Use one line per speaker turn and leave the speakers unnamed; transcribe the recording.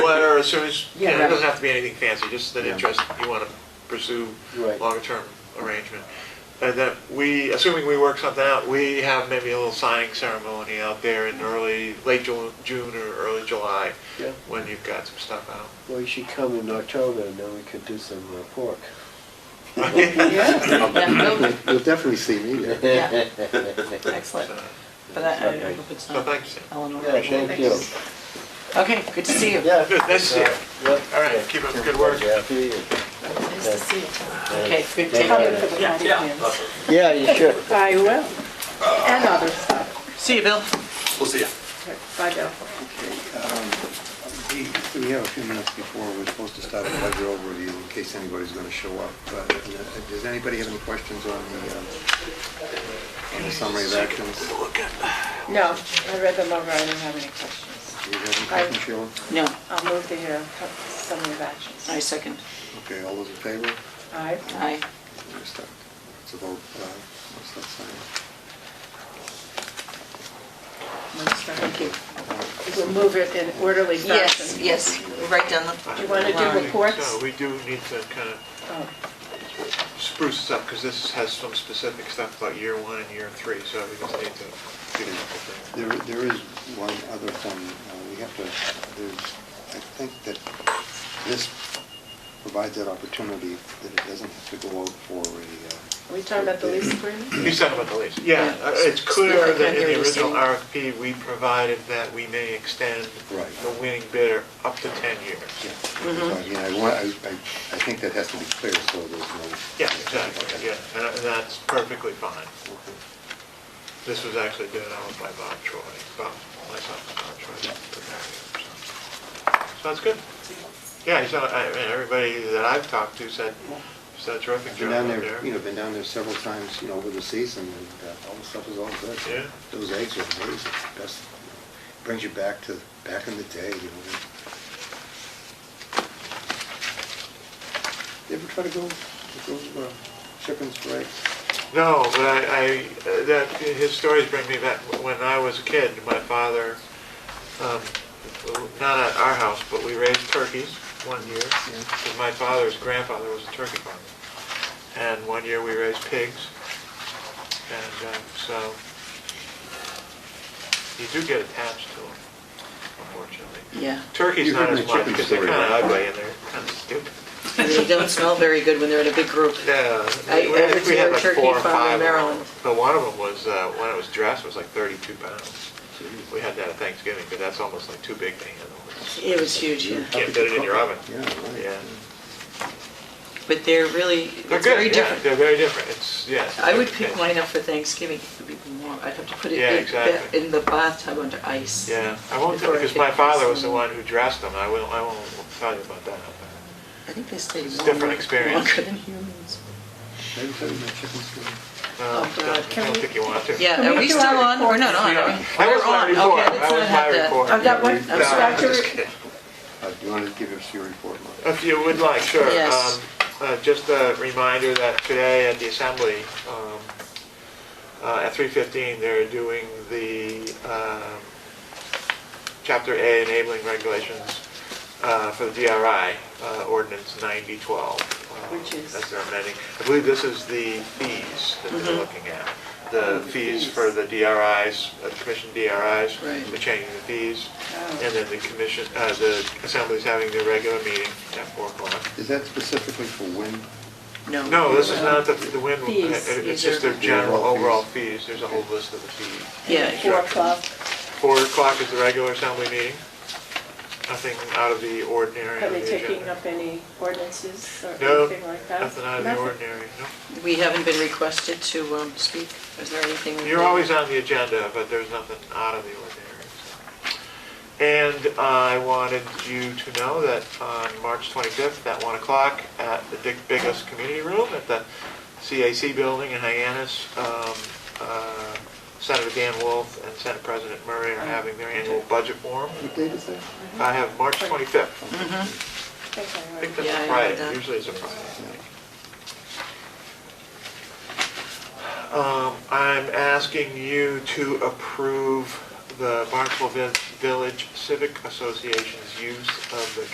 as soon as, you
Yeah,
know, it doesn't
right.
have to be anything fancy, just an
Yeah.
interest you want to pursue,
Right.
longer-term arrangement. And that we, assuming we work something out, we have maybe a little signing ceremony out there in early, late Ju- June or early July,
Yeah.
when you've got some stuff out.
Well, you should come in October, and then we could do some uh, pork. You'll
Yeah,
you'll definitely see me there.
Yeah.
So
excellent. But I, I hope it's
so
not
thanks.
Eleanor.
Yeah, thank you.
Okay, good to see you.
Yeah.
Good, nice to see you.
Yeah.
All right, keep up the good work.
Yeah, see you.
Nice to see you.
Yeah.
Okay, good
Thank you.
taking for the county plans.
Yeah, you should.
I will. And other stuff.
See you, Bill.
We'll see ya.
Bye, Bill.
We we have a few minutes before we're supposed to start a budget overview in case anybody's going to show up. But uh, does anybody have any questions on the uh, on the summary of actions? Do
No, I read them over, I don't have any questions.
you have any questions, Sheila?
No,
I'll move to hear summary of actions.
I second.
Okay, all those in favor?
Aye.
Aye.
Let's start. Let's vote. uh, let's not sign it.
Thank you.
We'll move it in orderly
Yes,
fashion.
yes, right down the.
Do you wanna do
I think
reports?
So we do need to kind of
Oh,
spruce this up, because this has some specific stuff about year one and year three, so we just need to get it up there.
There There is one other thing. uh, We have to, there's, I think that this provides that opportunity that it doesn't have to go out for a... uh,
Are we talking about the lease agreement?
He's talking about the lease. Yeah,
Yeah.
uh, it's clear
Speaker
that in
Kennedy
the
was
original
saying-
RFP, we provided that we may extend
Right.
the winning bidder up to 10 years.
Yeah, so,
Mm-hmm.
yeah, I want, I, I I think that has to be clear, so there's no...
Yeah, exactly, yeah, and and that's perfectly fine. This was actually done out by Bob Troy, Bob, myself and Bob Troy. the manager, So So that's good. Yeah, he's, not- I mean, everybody that I've talked to said, said terrific
I've
job
Been down
out
there, you know,
there.
been down there several times, you know, over the season, and uh, all the stuff is all good.
Yeah.
Those eggs are amazing, best, brings you back to, back in the day, you know. You Ever try to go, go uh, chicken strike?
No, but I, I, uh, that, his stories bring me back, when I was a kid, my father, um, not at our house, but we raised turkeys one year, because my father's grandfather was a turkey farmer. And one year we raised pigs, and um, so you do get attached to them, unfortunately.
Yeah.
Turkey's
You
not
heard
as
my
much,
chicken
because they're
story,
kind of
right?
ugly and they're kind of stupid.
They don't smell very good when they're in a big group.
Yeah,
I-
we- I
I
think
was
we
near
had
a
like
turkey
four or
farm in
five. of them.
Maryland.
But one of them was, uh, when it was dressed, was like 32 pounds. We had that at Thanksgiving, but that's almost like too big to handle.
It was huge, yeah.
Can't fit it in your oven.
Yeah, right.
Yeah.
But they're really,
They're
it's very
good, yeah,
different.
they're very different, it's, yes.
I would pick mine up for Thanksgiving. It would be warm. I'd have to put it
Yeah,
in-
exactly.
in the bathtub under ice.
Yeah, I won't,
Before I
because
could
my father
dress
was the
them.
one who dressed them, I won't, I won't tell you about that.
Oh, I think they stay
It's a
longer-
different experience.
Longer than humans.
Ever tried my chicken strike?
No,
Oh, God.
I don't think you want to.
Yeah,
Can
are
we
we
do
still
our
on? We're not on,
Yeah.
are we?
That was
We're
my
on.
report.
Okay,
That
let's
was my report.
I've got one, I'm
not have that.
No,
No, I'm
sorry,
just
Dr.
kidding.
Uh, Do you want to give us your report, Mark?
If you would like, sure.
Yes.
Um, uh, Just a reminder that today at the Assembly, um, uh, at 3:15, they're doing the um, Chapter A enabling regulations uh, for the DRI uh, ordinance 9012. uh,
Which is-
As they're amending. I believe this is the fees that
Mm-hmm.
they're looking at. The fees
fees.
for the DRIs, uh, commission DRIs.
Right.
They're changing the fees.
Oh.
And then the commission, uh, the Assembly's having their regular meeting at 4 o'clock.
Is that specifically for wind?
No.
No, this is not the, the wind,
Fees.
it- it's
These
just
are-
their general
The overall
overall fees, there's a whole list of the fees.
Yeah,
Four o'clock.
Four o'clock is the regular assembly meeting, nothing out of the ordinary
Are
on
they
the
taking
agenda.
up any ordinances or
No,
anything like that?
nothing out of the
Nothing.
ordinary, no.
we haven't been requested to um, speak. Is there anything? we
You're
can-
always on the agenda, but there's nothing out of the ordinary. And I wanted you to know that on March 25th at 1 o'clock at the Dick Biggles Community Room at the CAC Building in Hyannis, um, uh, Senator Dan Wolf and Senate President Murray are having their annual budget forum.
What date is that?
I have March 25th.
I think
I
I already-
think that's
Yeah, I
a
heard
Friday,
that.
usually it's a Friday. I think. Um, I'm asking you to approve the Barnstable Vi- Village Civic Association's use of the